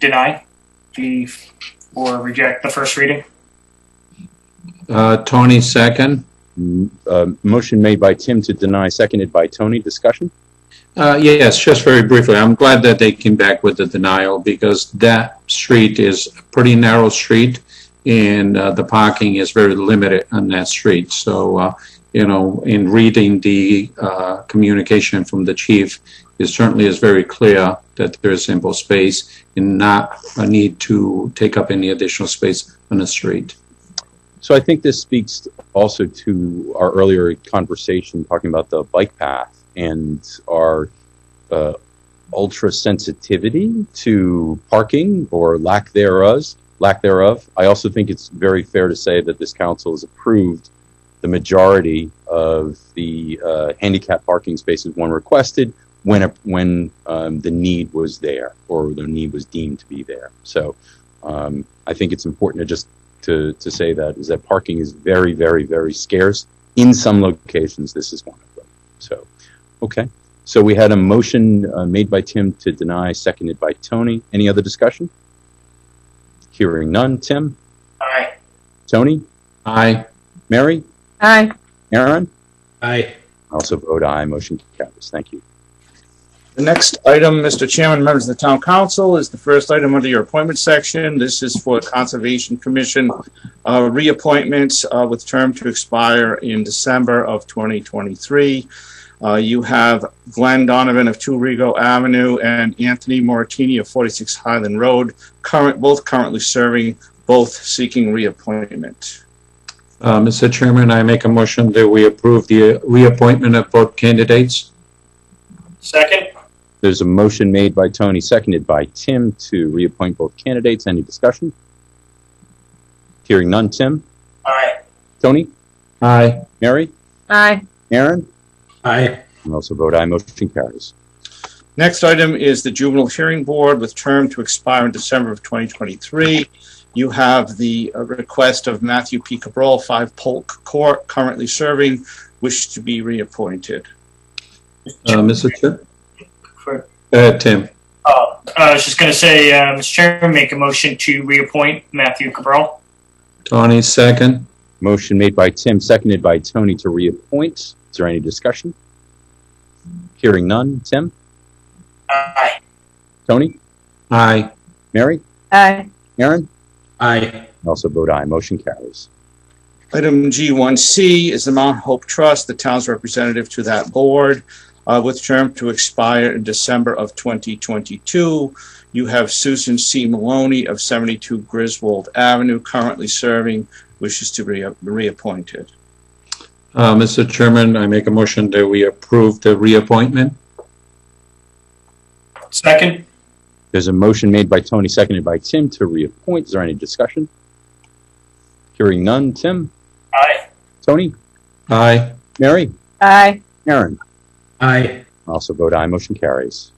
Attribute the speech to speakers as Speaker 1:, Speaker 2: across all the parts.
Speaker 1: deny the, or reject the first reading.
Speaker 2: Uh, Tony, second.
Speaker 3: M- uh, Motion made by Tim to deny, seconded by Tony. Discussion?
Speaker 2: Uh, yes, just very briefly, I'm glad that they came back with the denial because that street is a pretty narrow street and uh, the parking is very limited on that street. So, uh, you know, in reading the uh, communication from the chief, it certainly is very clear that there is ample space and not a need to take up any additional space on the street.
Speaker 3: So I think this speaks also to our earlier conversation talking about the bike path and our uh, ultra sensitivity to parking or lack thereof. Lack thereof. I also think it's very fair to say that this council has approved the majority of the uh, handicap parking spaces one requested when a, when um, the need was there or the need was deemed to be there. So um, I think it's important to just to, to say that is that parking is very, very, very scarce. In some locations, this is one of them. So, okay. So we had a motion uh, made by Tim to deny, seconded by Tony. Any other discussion? Hearing none. Tim,
Speaker 1: Aye.
Speaker 3: Tony,
Speaker 2: Aye.
Speaker 3: Mary,
Speaker 4: Aye.
Speaker 3: Aaron.
Speaker 5: Aye.
Speaker 3: I also vote aye. Motion carries. Thank you.
Speaker 5: The next item, Mr. Chairman, members of the town council, is the first item under your appointment section. This is for Conservation Commission uh, reappointments uh, with term to expire in December of 2023. Uh, You have Glenn Donovan of 2 Rego Avenue and Anthony Moratini of 46 Highland Road, current, both currently serving, both seeking reappointment.
Speaker 2: Uh, Mr. Chairman, I make a motion that we approve the uh, reappointment of both candidates.
Speaker 1: Second?
Speaker 3: There's a motion made by Tony, seconded by Tim to reappoint both candidates. Any discussion? Hearing none. Tim,
Speaker 1: Aye.
Speaker 3: Tony,
Speaker 2: Aye.
Speaker 3: Mary,
Speaker 4: Aye.
Speaker 3: Aaron.
Speaker 5: Aye.
Speaker 3: I also vote aye. Motion carries.
Speaker 5: Next item is the Juvenile Hearing Board with term to expire in December of 2023. You have the uh, request of Matthew P. Cabral, 5 Polk Court, currently serving, wish to be reappointed.
Speaker 2: Uh, Mr. Chair?
Speaker 1: For-
Speaker 2: Uh, Tim?
Speaker 1: Oh, I was just going to say, uh, Mr. Chairman, make a motion to reappoint Matthew Cabral.
Speaker 2: Tony, second.
Speaker 3: Motion made by Tim, seconded by Tony to reappoint. Is there any discussion? Hearing none. Tim,
Speaker 1: Aye.
Speaker 3: Tony,
Speaker 2: Aye.
Speaker 3: Mary,
Speaker 4: Aye.
Speaker 3: Aaron,
Speaker 5: Aye.
Speaker 3: I also vote aye. Motion carries.
Speaker 5: Item G1C is the Mount Hope Trust, the town's representative to that board, uh, with term to expire in December of 2022. You have Susan C. Maloney of 72 Griswold Avenue, currently serving, wishes to be re- reappointed.
Speaker 2: Uh, Mr. Chairman, I make a motion that we approve the reappointment.
Speaker 1: Second?
Speaker 3: There's a motion made by Tony, seconded by Tim to reappoint. Is there any discussion? Hearing none. Tim,
Speaker 1: Aye.
Speaker 3: Tony,
Speaker 2: Aye.
Speaker 3: Mary,
Speaker 4: Aye.
Speaker 3: Aaron,
Speaker 5: Aye.
Speaker 3: I also vote aye. Motion carries.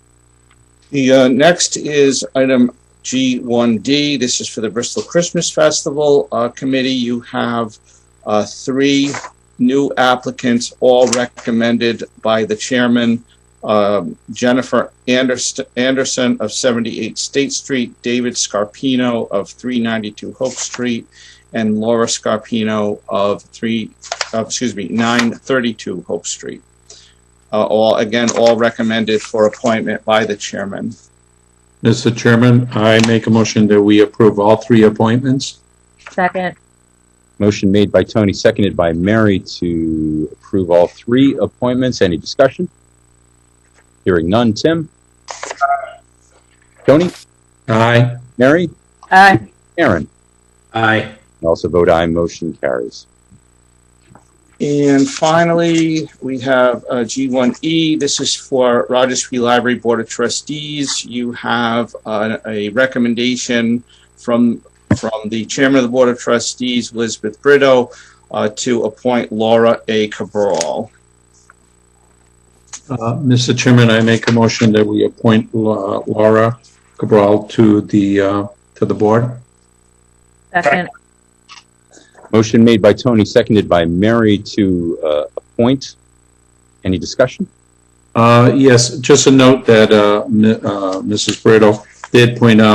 Speaker 5: The uh, next is item G1D. This is for the Bristol Christmas Festival uh, Committee. You have uh, three new applicants, all recommended by the chairman. Um, Jennifer Anders- Anderson of 78 State Street, David Scarpino of 392 Hope Street, and Laura Scarpino of 3, uh, excuse me, 932 Hope Street uh, all, again, all recommended for appointment by the chairman.
Speaker 2: Mr. Chairman, I make a motion that we approve all three appointments.
Speaker 4: Second.
Speaker 3: Motion made by Tony, seconded by Mary to approve all three appointments. Any discussion? Hearing none. Tim? Tony?
Speaker 2: Aye.
Speaker 3: Mary?
Speaker 4: Aye.
Speaker 3: Aaron?
Speaker 5: Aye.
Speaker 3: I also vote aye. Motion carries.
Speaker 5: And finally, we have uh, G1E. This is for Rogers Free Library Board of Trustees. You have uh, a recommendation from from the chairman of the Board of Trustees, Elizabeth Brito, uh, to appoint Laura A. Cabral.
Speaker 2: Uh, Mr. Chairman, I make a motion that we appoint La- Laura Cabral to the, uh, to the board.
Speaker 4: Second.
Speaker 3: Motion made by Tony, seconded by Mary to uh, appoint. Any discussion?
Speaker 2: Uh, yes, just a note that, uh, m- uh, Mrs. Brito did point out